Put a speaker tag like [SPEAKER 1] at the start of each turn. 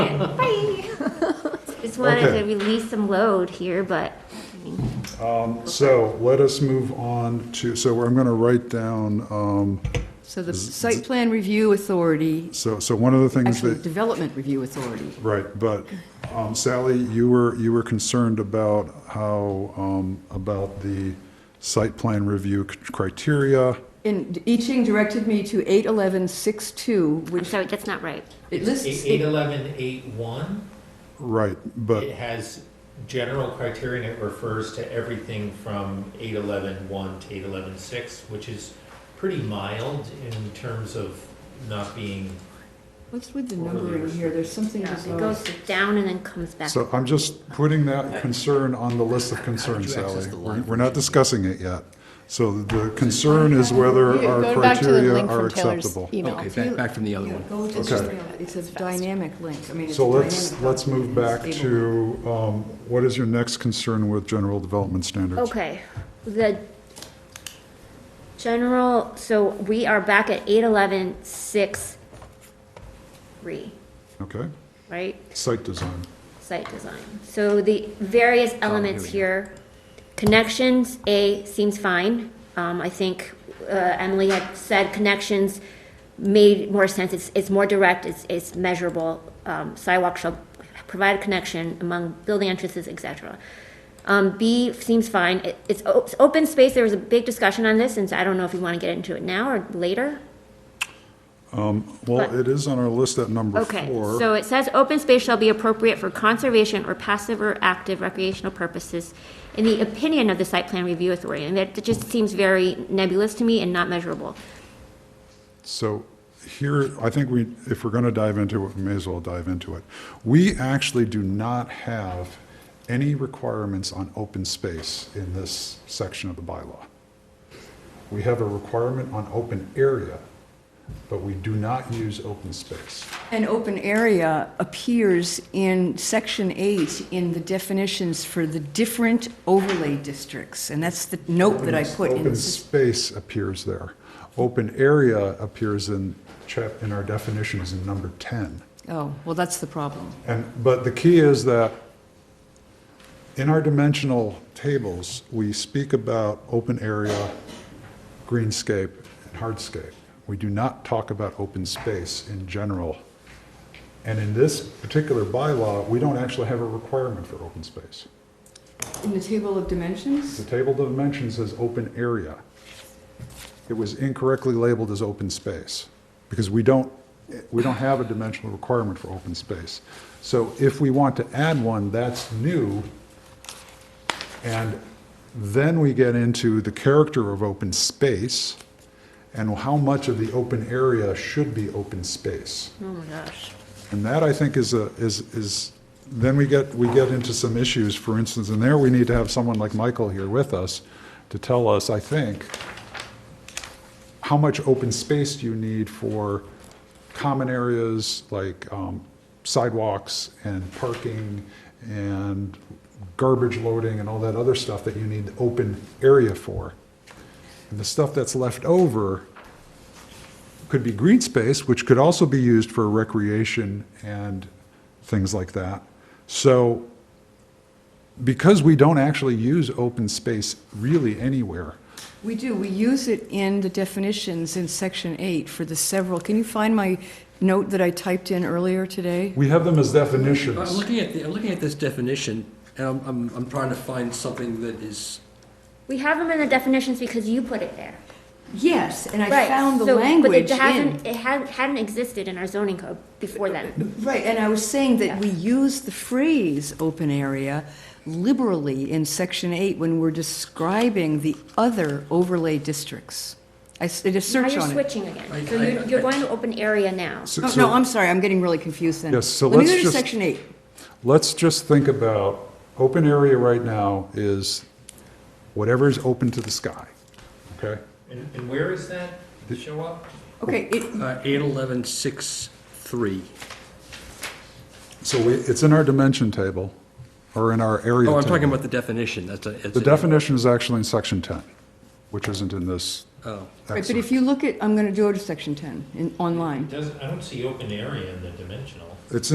[SPEAKER 1] wanted
[SPEAKER 2] Okay.
[SPEAKER 1] to release some load here, but, I mean,
[SPEAKER 2] So let us move on to, so I'm going to write down, um,
[SPEAKER 3] So the site plan review authority,
[SPEAKER 2] so, so one of the things
[SPEAKER 3] actually,
[SPEAKER 2] that,
[SPEAKER 3] development review authority.
[SPEAKER 2] right, but um, Sally, you were, you were concerned about how, um, about the site plan review c- criteria.
[SPEAKER 3] And I Ching directed me to 81162,
[SPEAKER 1] I'm
[SPEAKER 3] which
[SPEAKER 1] sorry, that's not right.
[SPEAKER 3] it lists.
[SPEAKER 4] Eight eleven eight one,
[SPEAKER 2] Right, but
[SPEAKER 4] it has general criteria and it refers to everything from eight eleven one to eight eleven six, which is pretty mild in terms of not being,
[SPEAKER 3] What's with the numbering here? There's something
[SPEAKER 1] Yeah, It
[SPEAKER 3] bizarre.
[SPEAKER 1] goes down and then comes back.
[SPEAKER 2] So I'm just putting that concern on the list of concerns, Sally. We're we're not discussing it yet. So the concern is whether
[SPEAKER 5] You-
[SPEAKER 2] our
[SPEAKER 5] go back to the
[SPEAKER 2] criteria
[SPEAKER 5] link
[SPEAKER 2] are
[SPEAKER 5] from Taylor's
[SPEAKER 2] acceptable.
[SPEAKER 5] email.
[SPEAKER 6] Okay, back, back from the other
[SPEAKER 3] Yeah,
[SPEAKER 6] one.
[SPEAKER 3] go to
[SPEAKER 2] Okay.
[SPEAKER 3] the- It's a dynamic link. I mean, it's a
[SPEAKER 2] So let's,
[SPEAKER 3] dynamic
[SPEAKER 2] let's move
[SPEAKER 3] document.
[SPEAKER 2] back
[SPEAKER 3] It's stable.
[SPEAKER 2] to, um, what is your next concern with general development standards?
[SPEAKER 1] Okay, the general, so we are back at eight eleven six three,
[SPEAKER 2] Okay,
[SPEAKER 1] right?
[SPEAKER 2] site design.
[SPEAKER 1] Site design. So the various elements here, connections, A seems fine. Um, I think, uh, Emily had said connections made more sense. It's, it's more direct, it's, it's measurable. Um, sidewalk shall provide a connection among building entrances, et cetera. Um, B seems fine. It, it's, o- it's open space. There was a big discussion on this, and so I don't know if you want to get into it now or later.
[SPEAKER 2] Well,
[SPEAKER 1] But-
[SPEAKER 2] it is on our list at number
[SPEAKER 1] Okay,
[SPEAKER 2] four.
[SPEAKER 1] so it says open space shall be appropriate for conservation or passive or active recreational purposes in the opinion of the site plan review authority, and that that just seems very nebulous to me and not measurable.
[SPEAKER 2] So here, I think we, if we're going to dive into it, we may as well dive into it. We actually do not have any requirements on open space in this section of the bylaw. We have a requirement on open area, but we do not use open space.
[SPEAKER 3] An open area appears in section eight in the definitions for the different overlay districts. And that's the note that I put in.
[SPEAKER 2] Open space appears there. Open area appears in chap, in our definitions in number 10.
[SPEAKER 3] Oh, well, that's the problem.
[SPEAKER 2] And, but the key is that in our dimensional tables, we speak about open area, greenscape, and hardscape. We do not talk about open space in general. And in this particular bylaw, we don't actually have a requirement for open space.
[SPEAKER 3] In the table of dimensions?
[SPEAKER 2] The table of dimensions says open area. It was incorrectly labeled as open space, because we don't, we don't have a dimensional requirement for open space. So if we want to add one, that's new, and then we get into the character of open space, and how much of the open area should be open space.
[SPEAKER 1] Oh my gosh.
[SPEAKER 2] And that, I think, is a, is, is, then we get, we get into some issues, for instance, and there we need to have someone like Michael here with us to tell us, I think, how much open space do you need for common areas like um, sidewalks and parking and garbage loading and all that other stuff that you need open area for? And the stuff that's left over could be green space, which could also be used for recreation and things like that. So because we don't actually use open space really anywhere,
[SPEAKER 3] We do, we use it in the definitions in section eight for the several, can you find my note that I typed in earlier today?
[SPEAKER 2] we have them as
[SPEAKER 6] I'm
[SPEAKER 2] definitions.
[SPEAKER 6] looking at, the- I'm looking at this definition, and I'm, I'm, I'm trying to find something that is,
[SPEAKER 1] We have them in the definitions because you put it there.
[SPEAKER 3] Yes, and I
[SPEAKER 1] Right,
[SPEAKER 3] found the
[SPEAKER 1] so-
[SPEAKER 3] language
[SPEAKER 1] But it hasn't, it
[SPEAKER 3] in.
[SPEAKER 1] hadn't, hadn't existed in our zoning code before then.
[SPEAKER 3] Right, and I was saying that we use the phrase open area liberally in section eight when we're describing the other overlay districts. I s- did a
[SPEAKER 1] Now
[SPEAKER 3] search
[SPEAKER 1] you're
[SPEAKER 3] on it.
[SPEAKER 1] switching again.
[SPEAKER 6] I-
[SPEAKER 1] So
[SPEAKER 6] I-
[SPEAKER 1] you're, you're going to open area now.
[SPEAKER 2] So-
[SPEAKER 3] Oh,
[SPEAKER 2] so
[SPEAKER 3] No, I'm sorry, I'm getting really confused then.
[SPEAKER 2] Yes, so
[SPEAKER 3] Let
[SPEAKER 2] let's
[SPEAKER 3] me go to
[SPEAKER 2] just-
[SPEAKER 3] section eight.
[SPEAKER 2] Let's just think about, open area right now is whatever is open to the sky, okay?
[SPEAKER 4] and, and where is that show up?
[SPEAKER 3] Okay,
[SPEAKER 2] Oh,
[SPEAKER 3] it,
[SPEAKER 6] uh, eight eleven six three.
[SPEAKER 2] So we, it's in our dimension table, or in our area
[SPEAKER 6] Oh, I'm
[SPEAKER 2] table.
[SPEAKER 6] talking about the definition, that's a. it's
[SPEAKER 2] The
[SPEAKER 6] a-
[SPEAKER 2] definition is actually in section 10, which isn't in this.
[SPEAKER 6] Oh.
[SPEAKER 3] right, but if you look at, I'm gonna go to section ten in, online.
[SPEAKER 4] Doesn't, I don't see open area in the dimensional.
[SPEAKER 2] It's